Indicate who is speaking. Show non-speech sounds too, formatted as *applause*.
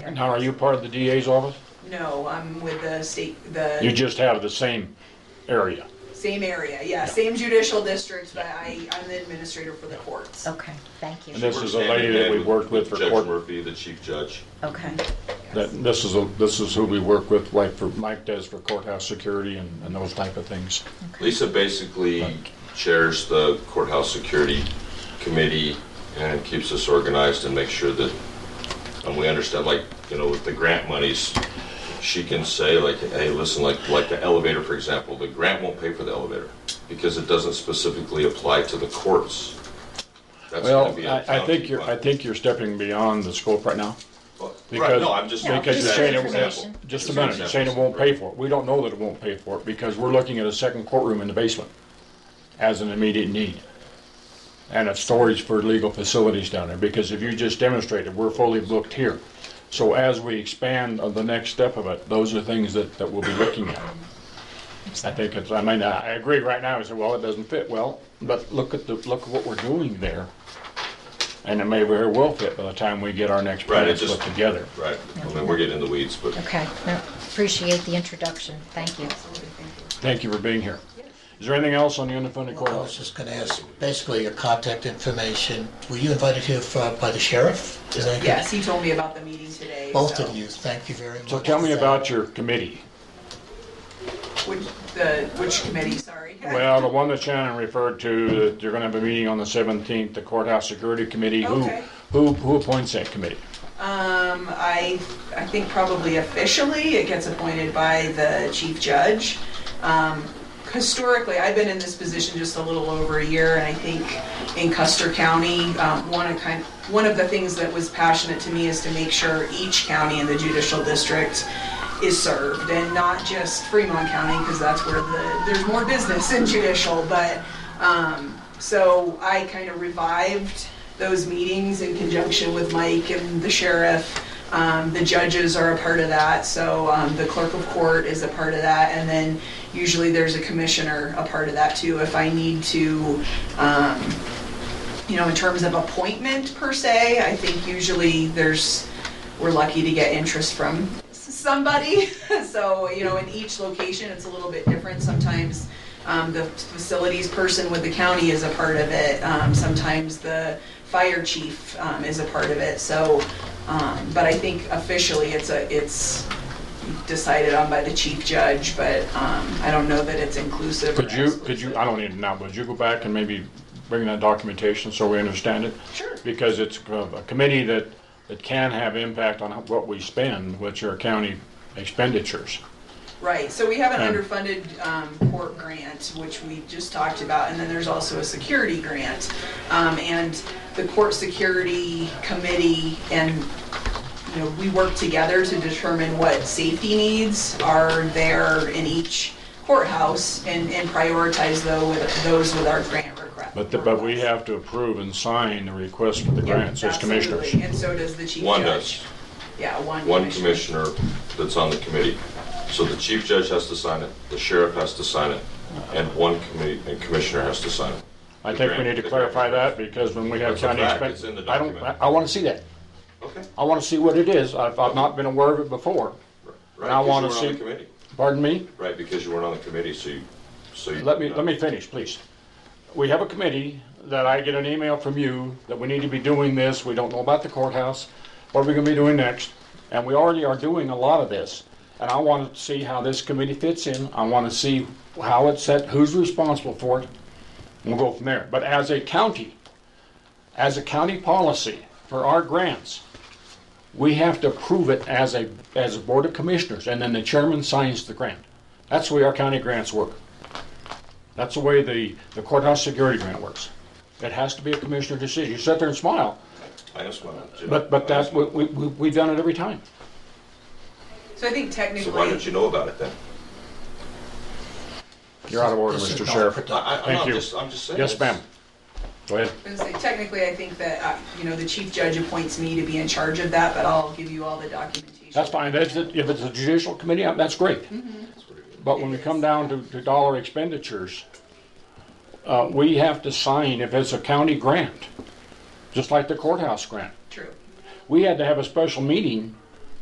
Speaker 1: there.
Speaker 2: Now, are you part of the DA's office?
Speaker 1: No, I'm with the state,
Speaker 2: You
Speaker 1: the
Speaker 2: just have the same area.
Speaker 1: same area, yeah, same judicial district, but I, I'm the administrator for the courts.
Speaker 3: Okay, thank
Speaker 2: And
Speaker 3: you.
Speaker 2: this is a
Speaker 4: We're standing
Speaker 2: lady that
Speaker 4: in
Speaker 2: we've worked with for
Speaker 4: Judge
Speaker 2: court.
Speaker 4: Murphy, the chief judge.
Speaker 3: Okay,
Speaker 2: That, this is, a this is who we work with, like for, Mike does for courthouse security and, and those type of things.
Speaker 4: Lisa basically chairs the courthouse security committee and keeps us organized and makes sure that, and we understand, like, you know, with the grant monies, she can say like, hey, listen, like, like the elevator, for example, the grant won't pay for the elevator because it doesn't specifically apply to the courts. That's gonna
Speaker 2: Well,
Speaker 4: be a
Speaker 2: I, I
Speaker 4: county
Speaker 2: think you're, I
Speaker 4: fund.
Speaker 2: think you're stepping beyond the scope right now.
Speaker 4: Well, Right,
Speaker 2: because-
Speaker 4: no, I'm just.
Speaker 3: Yeah,
Speaker 2: Because
Speaker 3: just
Speaker 2: you're
Speaker 3: for
Speaker 2: saying it
Speaker 3: information.
Speaker 2: won't, just a
Speaker 4: Just
Speaker 2: minute,
Speaker 4: an
Speaker 2: you're saying it
Speaker 4: example.
Speaker 2: won't pay for it. We don't know that it won't pay for it because we're looking at a second courtroom in the basement as an immediate need. And a storage for legal facilities down there, because if you just demonstrated, we're fully booked here. So as we expand on the next step of it, those are things that, that we'll be looking at. I think it's, I mean, I I agree right now, I said, well, it doesn't fit well, but look at the, look at what we're doing there. And it may very well fit by the time we get our next
Speaker 4: Right, it
Speaker 2: plans
Speaker 4: just-
Speaker 2: put together.
Speaker 4: Right, I mean, we're getting in the weeds, but.
Speaker 3: okay. No, Appreciate the introduction, thank you.
Speaker 2: Thank you for being here. Is there anything else on the unfunded
Speaker 5: I was
Speaker 2: courthouse?
Speaker 5: just gonna ask, basically your contact information, were you invited here for- by the sheriff? Is that correct?
Speaker 1: Yes, he told me about the meeting today.
Speaker 5: Both
Speaker 1: so-
Speaker 5: of you, thank you very much.
Speaker 2: So tell me about your committee.
Speaker 1: Which, the, which committee, sorry?
Speaker 2: Well, the one that Shannon referred to, that you're gonna have a meeting on the 17th, the courthouse security committee. Who,
Speaker 1: Okay.
Speaker 2: who, who appoints that committee?
Speaker 1: Um, I, I think probably officially, it gets appointed by the chief judge. Um, historically, I've been in this position just a little over a year, and I think in Custer County, um, one of kind, one of the things that was passionate to me is to make sure each county in the judicial district is served, and not just Fremont County, because that's where the, there's more business in judicial, but, um, so I kind of revived those meetings in conjunction with Mike and the sheriff. Um, the judges are a part of that, so um, the clerk of court is a part of that, and then usually there's a commissioner a part of that too. If I need to, um, you know, in terms of appointment per se, I think usually there's, we're lucky to get interest from s- somebody. *laughs* So, you know, in each location, it's a little bit different. Sometimes um, the facilities person with the county is a part of it. Um, Sometimes the fire chief um, is a part of it. So, um, but I think officially it's a, it's decided on by the chief judge, but um, I don't know that it's inclusive or
Speaker 2: Could you, could
Speaker 1: exclusive.
Speaker 2: you, I don't need to know, would you go back and maybe bring that documentation so we understand it?
Speaker 1: Sure.
Speaker 2: Because it's a a committee that, that can have impact on what we spend, which are county expenditures.
Speaker 1: Right, so we have an
Speaker 2: Um,
Speaker 1: underfunded um, court grant, which we just talked about, and then there's also a security grant. Um, And the court security committee and, you know, we work together to determine what safety needs are there in each courthouse and and prioritize tho- with- those with our grant request.
Speaker 2: But, the- but we have to approve and sign the request for the grants as commissioners.
Speaker 1: Absolutely, and so does the chief judge.
Speaker 4: One does.
Speaker 1: Yeah, one
Speaker 4: one commissioner that's on the committee. So the chief judge has to sign it, the sheriff has to sign it, and one committee, and commissioner has to sign it.
Speaker 2: I think we need to clarify that, because when we have
Speaker 4: That's a
Speaker 2: county
Speaker 4: fact. It's in
Speaker 2: expenses,
Speaker 4: the
Speaker 2: I don't, I
Speaker 4: document.
Speaker 2: I wanna see that.
Speaker 4: Okay.
Speaker 2: I wanna see what it is, I've, I've not been aware of it before.
Speaker 4: Right,
Speaker 2: I
Speaker 4: because you
Speaker 2: wanna
Speaker 4: weren't on the
Speaker 2: see-
Speaker 4: committee.
Speaker 2: Pardon me?
Speaker 4: Right, because you weren't on the committee, so you, so you.
Speaker 2: Let me, let me finish, please. We have a committee that I get an email from you that we need to be doing this, we don't know about the courthouse, what are we gonna be doing next? And we already are doing a lot of this, and I wanna see how this committee fits in, I wanna see how it's set, who's responsible for it, and we'll go from there. But as a county, as a county policy for our grants, we have to approve it as a, as a board of commissioners, and then the chairman signs the grant. That's the way our county grants work. That's the way the, the courthouse security grant works. It has to be a commissioner decision. You sit there and smile,
Speaker 4: I asked my.
Speaker 2: but, but that's, we, we, we- we've done it every time.
Speaker 1: So I think
Speaker 4: So why didn't
Speaker 1: technically,
Speaker 4: you know about it then?
Speaker 2: You're out of order,
Speaker 5: This is
Speaker 2: Mr.
Speaker 5: not
Speaker 2: Sheriff.
Speaker 5: productive.
Speaker 4: I, I,
Speaker 2: Thank
Speaker 4: no, I'm
Speaker 2: you.
Speaker 4: just, I'm just saying.
Speaker 2: Yes,
Speaker 4: it's-
Speaker 2: ma'am. Go ahead.
Speaker 1: I was gonna say, technically, I think that, uh, you know, the chief judge appoints me to be in charge of that, but I'll give you all the documentation.
Speaker 2: That's fine. That's, it. if it's a judicial committee, uh, that's great. But when we come down to, to dollar expenditures, uh, we have to sign if it's a county grant, just like the courthouse grant.
Speaker 1: True.
Speaker 2: We had to have a special meeting